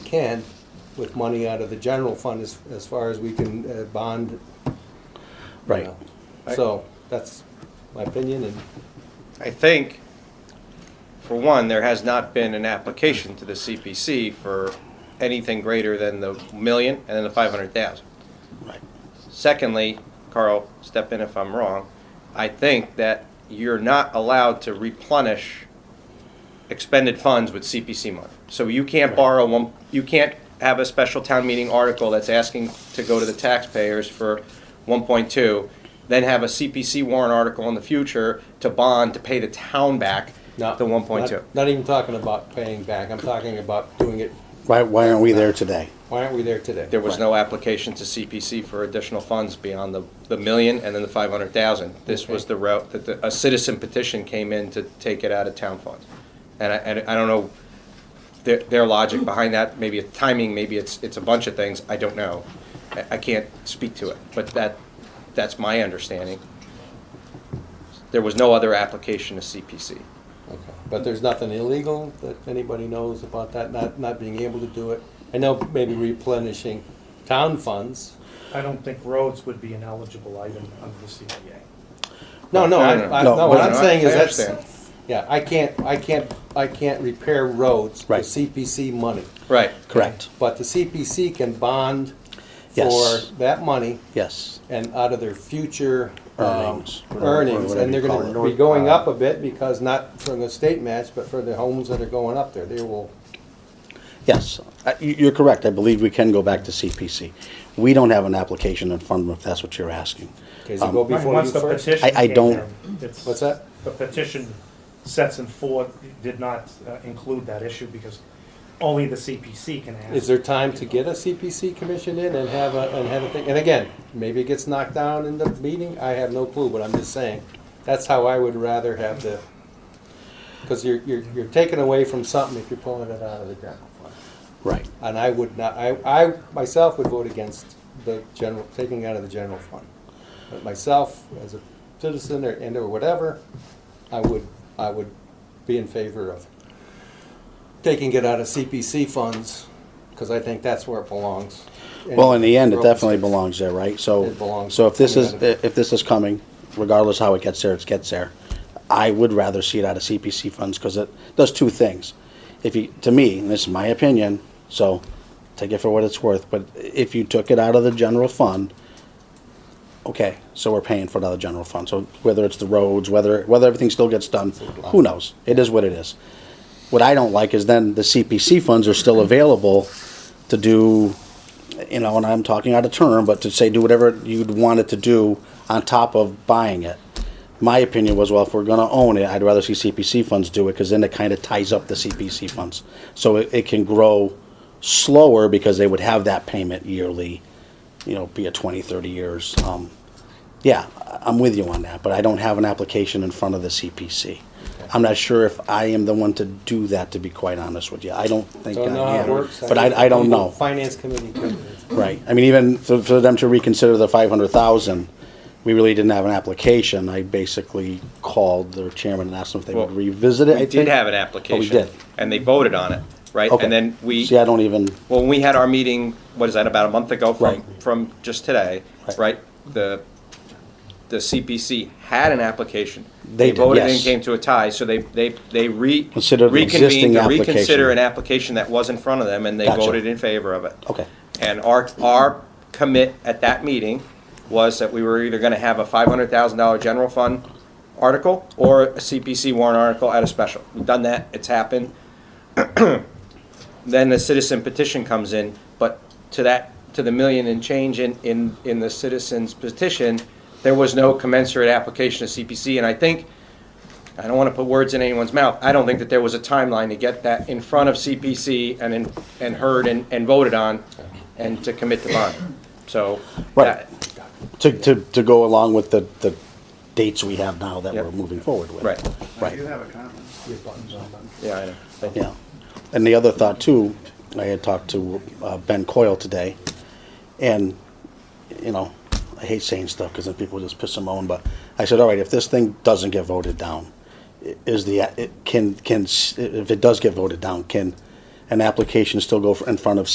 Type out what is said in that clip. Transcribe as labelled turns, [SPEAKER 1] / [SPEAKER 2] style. [SPEAKER 1] can with money out of the general fund as, as far as we can uh, bond. you
[SPEAKER 2] Right.
[SPEAKER 1] know. So that's my opinion and
[SPEAKER 3] I think, for one, there has not been an application to the CPC for anything greater than the million and then the five hundred thousand.
[SPEAKER 2] Right.
[SPEAKER 3] Secondly, Carl, step in if I'm wrong, I think that you're not allowed to replenish expended funds with CPC money. So you can't borrow one, you can't have a special town meeting article that's asking to go to the taxpayers for one point two, then have a CPC warrant article in the future to bond to pay the town back
[SPEAKER 1] not.
[SPEAKER 3] the one point two.
[SPEAKER 1] not- Not even talking about paying back. I'm talking about doing it.
[SPEAKER 2] Why, why aren't we there today?
[SPEAKER 1] Why aren't we there today?
[SPEAKER 3] There was no application to CPC for additional funds beyond the, the million and then the five hundred thousand. This was
[SPEAKER 1] Okay.
[SPEAKER 3] the route that the, a citizen petition came in to take it out of town funds. And I, and I don't know their, their logic behind that, maybe it's timing, maybe it's, it's a bunch of things, I don't know. I, I can't speak to it, but that, that's my understanding. There was no other application to CPC.
[SPEAKER 1] Okay. But there's nothing illegal that anybody knows about that, not, not being able to do it. I know maybe replenishing town funds.
[SPEAKER 4] I don't think roads would be an eligible item under the CPA.
[SPEAKER 1] No, no, I,
[SPEAKER 3] No, no,
[SPEAKER 1] I,
[SPEAKER 2] no.
[SPEAKER 1] no, what I'm
[SPEAKER 3] No, no,
[SPEAKER 1] saying is
[SPEAKER 3] I
[SPEAKER 1] that's,
[SPEAKER 3] understand.
[SPEAKER 1] yeah, I can't, I can't, I can't repair roads with
[SPEAKER 2] Right.
[SPEAKER 1] CPC money.
[SPEAKER 3] Right.
[SPEAKER 2] Correct.
[SPEAKER 1] But the CPC can bond for
[SPEAKER 2] Yes.
[SPEAKER 1] that money
[SPEAKER 2] Yes.
[SPEAKER 1] and out of their future um,
[SPEAKER 2] Earnings, or
[SPEAKER 1] earnings,
[SPEAKER 2] whatever
[SPEAKER 1] and they're
[SPEAKER 2] you
[SPEAKER 1] going
[SPEAKER 2] call
[SPEAKER 1] to
[SPEAKER 2] it.
[SPEAKER 1] be going up a bit because not for the state match, but for the homes that are going up there, they will.
[SPEAKER 2] Yes. Uh, you- You're correct. I believe we can go back to CPC. We don't have an application in front of them, if that's what you're asking.
[SPEAKER 1] Okay,
[SPEAKER 2] Um,
[SPEAKER 1] so go before you
[SPEAKER 4] Once the
[SPEAKER 1] first.
[SPEAKER 4] petition
[SPEAKER 2] I- I
[SPEAKER 4] came
[SPEAKER 2] don't-
[SPEAKER 4] in, it's-
[SPEAKER 1] What's that?
[SPEAKER 4] The petition sets in forth, did not uh, include that issue because only the CPC can ask.
[SPEAKER 1] Is there time to get a CPC commission in and have a, and have a thing? And again, maybe it gets knocked down in the meeting, I have no clue, but I'm just saying, that's how I would rather have the, because you're, you're, you're taking away from something if you're pulling it out of the general fund.
[SPEAKER 2] Right.
[SPEAKER 1] And I would not, I, I myself would vote against the general, taking out of the general fund. But myself, as a citizen or, and or whatever, I would, I would be in favor of taking it out of CPC funds, because I think that's where it belongs.
[SPEAKER 2] Well, in the end, it
[SPEAKER 1] Broken
[SPEAKER 2] definitely
[SPEAKER 1] space.
[SPEAKER 2] belongs there, right? So.
[SPEAKER 1] It belongs
[SPEAKER 2] So if this is,
[SPEAKER 1] there.
[SPEAKER 2] if this is coming, regardless how it gets there, it gets there. I would rather see it out of CPC funds because it does two things. If you, to me, and this is my opinion, so take it for what it's worth, but if you took it out of the general fund, okay, so we're paying for another general fund. So whether it's the roads, whether, whether everything still gets done, who knows? It is what it is. What I don't like is then the CPC funds are still available to do, you know, and I'm talking out of turn, but to say do whatever you'd want it to do on top of buying it. My opinion was, well, if we're gonna own it, I'd rather see CPC funds do it, because then it kind of ties up the CPC funds. So it, it can grow slower because they would have that payment yearly, you know, be it 20, 30 years. Um, yeah, I- I'm with you on that, but I don't have an application in front of the CPC. I'm not sure if I am the one to do that, to be quite honest with you. I don't think I
[SPEAKER 1] Don't know how it
[SPEAKER 2] am,
[SPEAKER 1] works.
[SPEAKER 2] but I, I don't know.
[SPEAKER 1] Finance committee could,
[SPEAKER 2] Right, I mean, even for, for them to reconsider the five hundred thousand, we really didn't have an application, I basically called their chairman and asked them if they would
[SPEAKER 3] Well,
[SPEAKER 2] revisit it, I
[SPEAKER 3] We
[SPEAKER 2] think. Oh,
[SPEAKER 3] did have an application.
[SPEAKER 2] did.
[SPEAKER 3] And they voted on it, right?
[SPEAKER 2] Okay.
[SPEAKER 3] And then we.
[SPEAKER 2] See, I don't even,
[SPEAKER 3] Well, when we had our meeting, what is that, about a month ago
[SPEAKER 2] Right.
[SPEAKER 3] from, from just today,
[SPEAKER 2] Right.
[SPEAKER 3] right? The, the CPC had an application.
[SPEAKER 2] They did,
[SPEAKER 3] voted and
[SPEAKER 2] yes.
[SPEAKER 3] came to a tie, so they, they, they re.
[SPEAKER 2] Considered an existing
[SPEAKER 3] reconvened to
[SPEAKER 2] application.
[SPEAKER 3] Reconsider an application that was in front of them, and they
[SPEAKER 2] Gotcha.
[SPEAKER 3] voted in favor of it.
[SPEAKER 2] okay,
[SPEAKER 3] And our, our commit at that meeting was that we were either gonna have a five hundred thousand dollar general fund article or a CPC warrant article at a special. We've done that, it's happened. Then the citizen petition comes in, but to that, to the million and change in, in, in the citizen's petition, there was no commensurate application of CPC, and I think, I don't wanna put words in anyone's mouth, I don't think that there was a timeline to get that in front of CPC and in, and heard and, and voted on, and to commit to bond, so.
[SPEAKER 2] Right.
[SPEAKER 3] that-
[SPEAKER 2] to, to, to go along with the, the dates we have now that
[SPEAKER 3] Yep.
[SPEAKER 2] we're moving forward with.
[SPEAKER 3] Right,
[SPEAKER 5] I
[SPEAKER 2] Right,
[SPEAKER 5] do have a comment.
[SPEAKER 3] yeah, I know, thank you.
[SPEAKER 2] yeah. And the other thought too, I had talked to, uh, Ben Coyle today, and, you know, I hate saying stuff, cause then people just piss and moan, but I said, all right, if this thing doesn't get voted down, i- is the, it can, can, s- if it does get voted down, can, an application still go in front of